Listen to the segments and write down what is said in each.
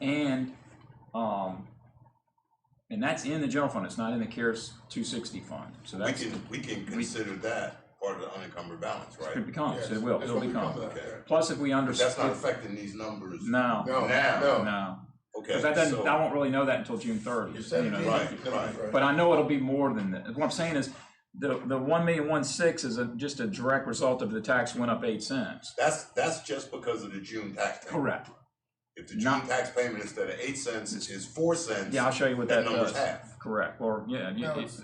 and, um, and that's in the general fund, it's not in the CARES two sixty fund, so We that's, can, we can consider that part of the unencumbered balance, it right? becomes, Yes, it will, that's it'll what we come become. up Okay. with. Plus, if we under. But that's not affecting these numbers. No, No, Now. no, no, Okay, because that doesn't, I so, won't really know that until June thirty. you said you know. it. Right, You said it right. But I know it'll be more than that. What I'm saying is, the, the one million one six is a, just a direct result of the tax went up eight cents. that's, that's just because of the June tax payment. Correct. If the June Not- tax payment instead of eight cents is four cents, Yeah, I'll show you what that that number's does. half. Correct, or, yeah, you- No, you- it's-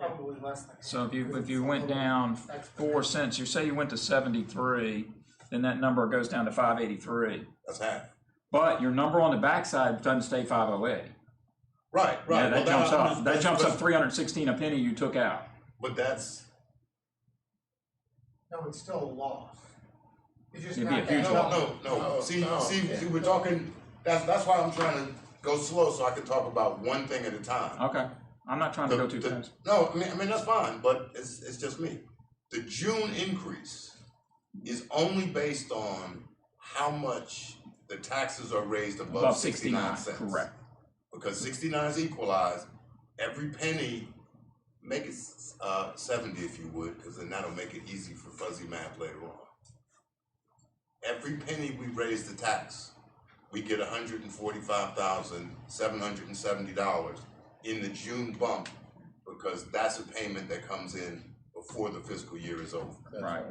Probably less than. so if you, if you went down four cents, you say you went to seventy-three, then that number goes down to five eighty-three. That's half. But your number on the backside doesn't stay five oh eight. Right, Yeah, right. Well, that jumps I'm up, just- that but- jumps but- up three hundred and sixteen a penny you took out. But that's, No, it's still a loss. It's just It'd be a not huge that no, up. no, no, No, see, no. see, see, we're talking, that's, that's why I'm trying to go slow so I can talk about one thing at a time. Okay, I'm not trying to The- go too the- fast. No, I mean, I mean, that's fine, but it's, it's just me. The June increase is only based on how much the taxes are raised above Above sixty-nine sixty-nine, cents. correct. Because sixty-nine is equalized, every penny, make it, uh, seventy if you would, cause then that'll make it easy for fuzzy math later on. Every penny we raise the tax, we get hundred and forty-five thousand, seven hundred and seventy dollars in the June bump, because that's a payment that comes in before the fiscal year is over. That's Right.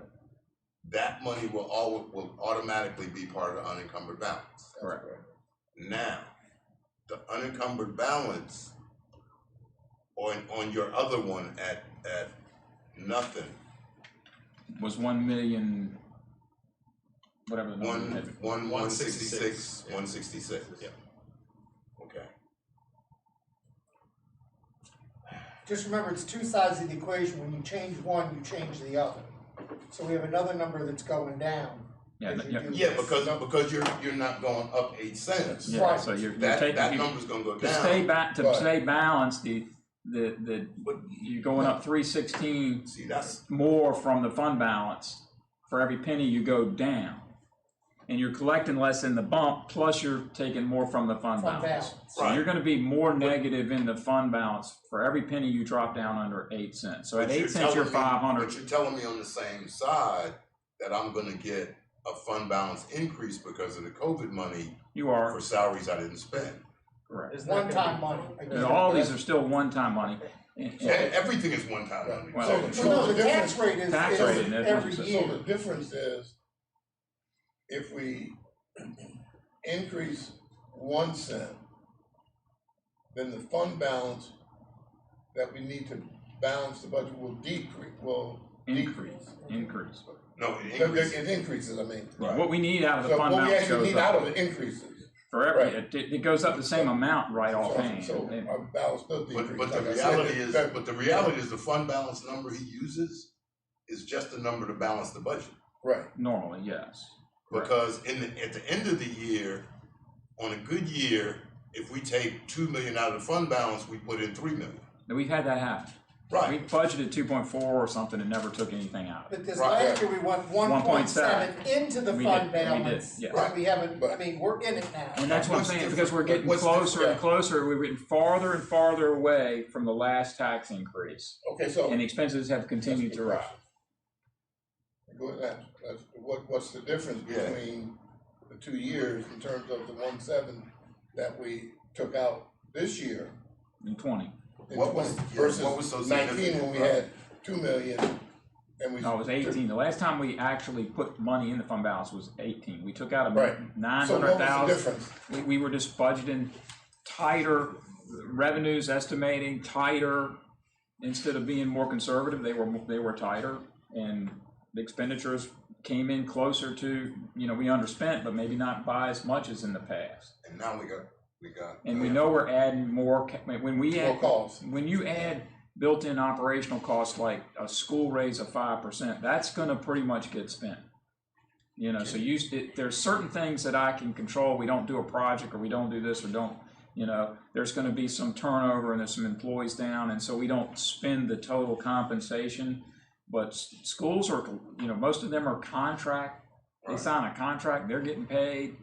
That money will all, will automatically be part of the unencumbered balance. That's Correct. Now, the unencumbered balance on, on your other one at, at nothing, was one million, whatever the number one, is. one, one sixty-six, 166, yeah. one sixty-six. Yeah. Okay, Just remember, it's two sides of the equation. When you change one, you change the other. So we have another number that's going down. Yeah, as that- you yeah, do yeah, this. because, because you're, you're not going up eight cents. yeah, so you're, you're That, that taking, you- number's gonna go to stay down, ba, to Right. stay balanced, the, the, the, but, you're going up three sixteen see, that's, more from the fund balance for every penny you go down. And you're collecting less in the bump, plus you're taking more from the fund Fund balance. balance. So you're Right. gonna be more negative in the fund balance for every penny you drop down under eight cents. So at But eight cents, you're telling me- five hundred. But you're telling me on the same side that I'm gonna get a fund balance increase because of the COVID money You are, for salaries I didn't spend. correct. It's One-time money. And all these are still one-time money. And- E- and- Everything is one time money. Well, So the Well, no, truth, the the tax difference, rate is, Tax is rate, and that's every what I'm so the year. difference is if we increase one cent, then the fund balance that we need to balance the budget will decrease, will decrease. Increase, increase. No, it It increases. it increases, I mean. What we need out of the So fund what we balance actually goes need out up of it increases. for every, Right. it, it goes up the same amount right So- offhand. So And- our balance does decrease. But, but the Like I said, reality is, that- but the reality is the fund balance number he uses is just the number to balance the budget. Right, Normally, yes. Correct. Because in the, at the end of the year, on a good year, if we take two million out of the fund balance, we put in three million. And We've had that happen. We Right, budgeted two point four or something and never took anything out of it. But this Right. last year, we went one point seven into the We fund did- we did, balance. yes. But we haven't, I But- mean, we're in it now. And that's what I'm What's saying, different- because we're getting what's closer different? and closer, we're getting farther and farther away from the last tax increase. okay, so. And expenses have continued to rise. Go ahead. That's- What, what's the difference Yeah. between the two years in terms of the one seven that we took out this year? In twenty, in What was- 20 yeah, what was so Versus nineteen significant, when we right? had two million and we. no, it was eighteen. The last time we actually put money in the fund balance was eighteen. We took out a Right. nine So hundred what was the thousand. difference? We, we were just budgeting tighter revenues, estimating tighter, instead of being more conservative, they were, they were tighter. And the expenditures came in closer to, you know, we underspent, but maybe not by as much as in the past. and now we got, we got. And we know we're adding more, ca- when we More add, calls. when you add built-in operational costs like a school raise of five percent, that's gonna pretty much get spent. You know, so you, it- there's certain things that I can control, we don't do a project, or we don't do this, or don't, you know, there's gonna be some turnover and there's some employees down, and so we don't spend the total compensation. But s- schools are, you know, most of them are contract, they sign a contract, they're getting paid,